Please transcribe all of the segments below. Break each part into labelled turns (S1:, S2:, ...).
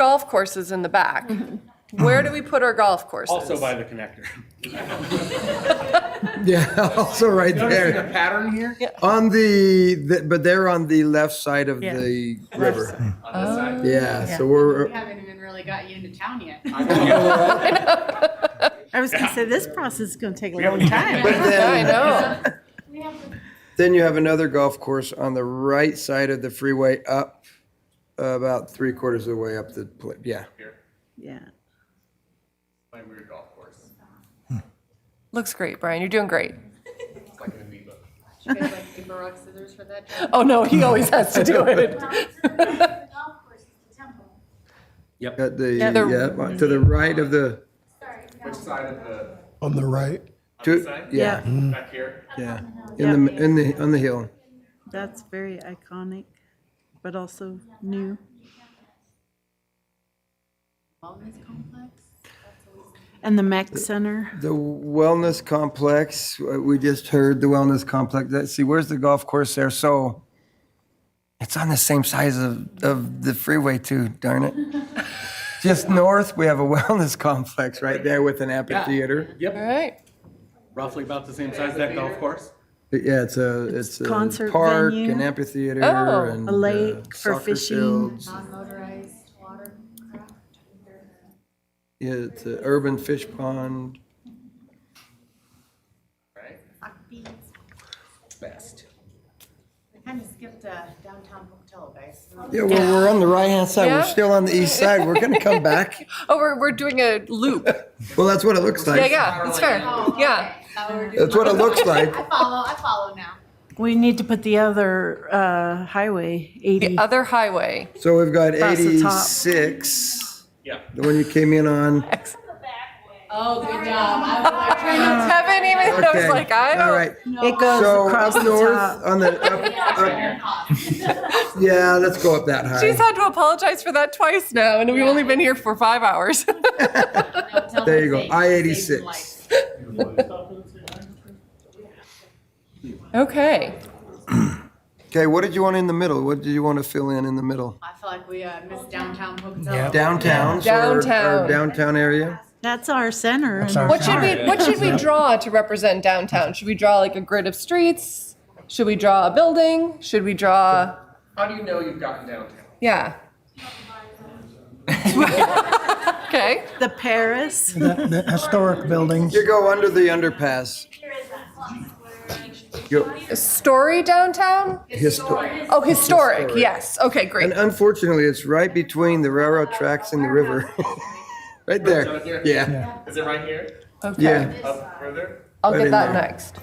S1: golf courses in the back. Where do we put our golf courses?
S2: Also by the connector.
S3: Yeah, also right
S2: Noticing a
S3: there.
S2: pattern here?
S3: On the, the- but they're on the left side of
S4: Yeah.
S3: the river.
S2: On this side.
S3: Yeah,
S4: Yeah.
S3: so we're,
S5: We haven't even really got you into town yet.
S2: I know.
S4: I was gonna say, this process is gonna take a long time.
S3: but
S1: I
S3: then,
S1: know.
S5: We have to
S3: then you have another golf course on the right side of the freeway up, about three quarters of the way up the, pla- yeah.
S4: Yeah.
S2: My weird golf course.
S1: Looks great, Brian. You're doing great.
S2: It's like an amoeba.
S5: get like paper, rock, scissors for that. job.
S1: Oh, no, he always has to do it.
S6: The golf course is the temple.
S3: At the,
S4: Yeah.
S1: The-
S3: yeah, to the right of the,
S6: Sorry. the
S2: Which
S6: golf-
S2: side of the,
S7: on the right.
S2: on
S3: to,
S2: this side?
S3: yeah,
S2: Back here?
S3: yeah. In the, in the, on the hill.
S4: That's very iconic, but also new.
S5: Wellness complex. That's always-
S4: And the Mac Center,
S3: The wellness complex, uh, we just heard the wellness complex. Let's see, where's the golf course there? So it's on the same size of, of the freeway too, darn it. Just north, we have a wellness complex right there with an amphitheater.
S1: All right.
S2: Roughly about the same size as that golf course?
S3: But yeah, it's a, it's a
S4: Concert
S3: park,
S4: venue.
S3: an amphitheater
S1: Oh.
S3: and.
S4: A lake
S3: uh,
S4: for
S3: soccer
S4: fishing.
S3: fields.
S5: Non-motorized watercraft.
S3: Yeah, it's an urban fish pond.
S2: Right?
S5: Upbeat.
S2: Best.
S5: We kind of skipped uh, downtown hotel, guys.
S3: Yeah, well, we're on the right-hand side.
S1: Yeah.
S3: We're still on the east side. We're gonna come back.
S1: Oh, we're, we're doing a loop.
S3: Well, that's what it looks
S1: Yeah,
S3: like.
S1: yeah, that's fair.
S5: Oh,
S1: Yeah.
S5: okay. Oh, we're doing-
S3: That's what it looks like.
S5: I follow, I follow now.
S4: we need to put the other, uh, highway eighty.
S1: The other highway.
S3: So we've got
S4: Across the top.
S3: 86,
S2: Yeah.
S3: the one you came in on.
S5: Oh, good job. I was trying
S1: Haven't even, I was
S3: Okay.
S1: like, I
S3: All
S1: don't.
S3: right.
S4: It goes
S3: So
S4: across
S3: up
S4: the
S3: north
S4: top.
S3: on the, up- up- yeah, let's go up that
S1: She's
S3: high.
S1: had to apologize for that twice now, and we've only been here for five hours.
S3: There you go, I-86.
S1: Okay.
S3: Okay, what did you want in the middle? What did you want to fill in in the middle?
S5: I feel like we uh, missed downtown hotel.
S7: Yeah.
S3: Downtown, so our-
S1: Downtown.
S3: our downtown area?
S4: That's our center.
S7: That's
S4: and-
S7: our-
S1: What should we
S7: Alright.
S1: What should we draw to represent downtown? Should we draw like a grid of streets? Should we draw a building? Should we draw?
S2: How do you know you've gotten downtown?
S1: Yeah. okay.
S4: The Paris,
S7: That, that historic buildings.
S3: You go under the underpass.
S6: There is that slum square.
S3: Go-
S1: Story downtown.
S3: histo-
S1: Oh, historic. Yes. Okay. Great.
S3: And unfortunately, it's right between the railroad tracks and the river. Right there, yeah,
S2: Is it right here?
S1: Okay.
S3: uh, yeah,
S2: Up further?
S1: I'll
S3: Right
S1: get
S3: in
S1: that
S3: there.
S1: next.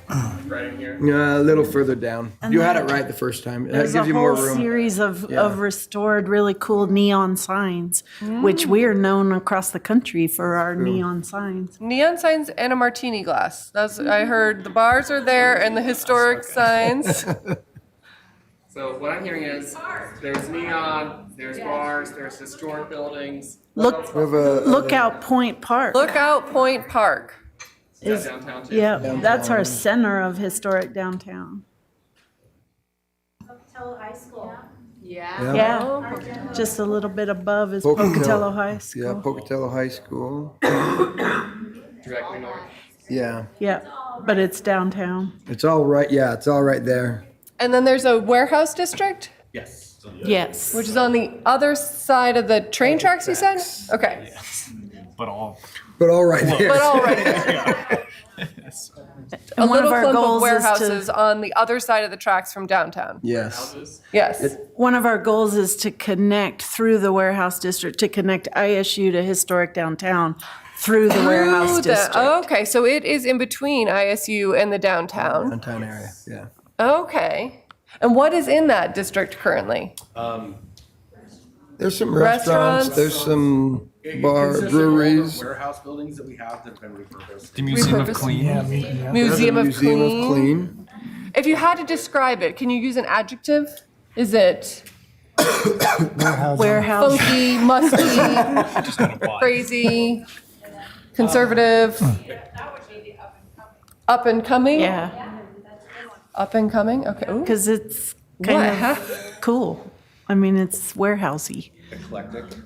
S2: Right in here?
S3: Yeah, a little further down. You had it right the first time. That
S4: there's a
S3: gives you more
S4: whole
S3: room.
S4: series of,
S3: Yeah.
S4: of restored really cool neon signs, which we are known across the country for our neon signs.
S1: Neon signs and a martini glass. That's I heard. The bars are there and the historic signs.
S2: So what I'm hearing is, there's neon, there's bars, there's historic buildings.
S4: Look,
S3: We have a-
S4: Lookout Point Park.
S1: Lookout Point Park.
S2: Is that downtown too?
S4: Yeah, that's our center of historic downtown.
S6: Pocatello High School.
S5: Yeah.
S4: Yeah,
S6: Our demo
S4: just a little bit above is
S3: Pocatello.
S4: Pocatello High
S3: Yeah,
S4: School.
S3: Pocatello High School.
S2: Directly north.
S3: Yeah,
S4: Yeah, but it's downtown.
S3: it's all right. Yeah, it's all right there.
S1: And then there's a warehouse district,
S2: Yes.
S4: Yes.
S1: which is on the other side of the train tracks. You said. Okay.
S8: but all
S3: But all right there.
S1: But all right. A
S4: And one of
S1: little
S4: our
S1: clump of
S4: goals is to-
S1: warehouses on the other side of the tracks from downtown.
S3: Yes.
S1: Yes.
S4: One of our goals is to connect through the warehouse district, to connect ISU to historic downtown through the warehouse
S1: Through the-
S4: district.
S1: Okay, so it is in between ISU and the downtown.
S3: Downtown area, yeah.
S1: Okay. And what is in that district currently?
S2: Um,
S3: There's some restaurants,
S1: Restaurants.
S3: there's some bar, breweries.
S2: Warehouse buildings that we have that have been repurposed.
S8: the Museum of
S1: Repurposed.
S8: Clean.
S3: There's a
S1: Museum of
S3: Museum of
S1: Clean.
S3: Clean.
S1: If you had to describe it, can you use an adjective? Is it
S4: Warehouse,
S1: funky, musty, crazy, conservative? Up and coming?
S4: yeah,
S1: Up and coming? Okay. Ooh.
S4: because it's
S1: What?
S4: kind of cool. I mean, it's warehousey.
S2: Eclectic.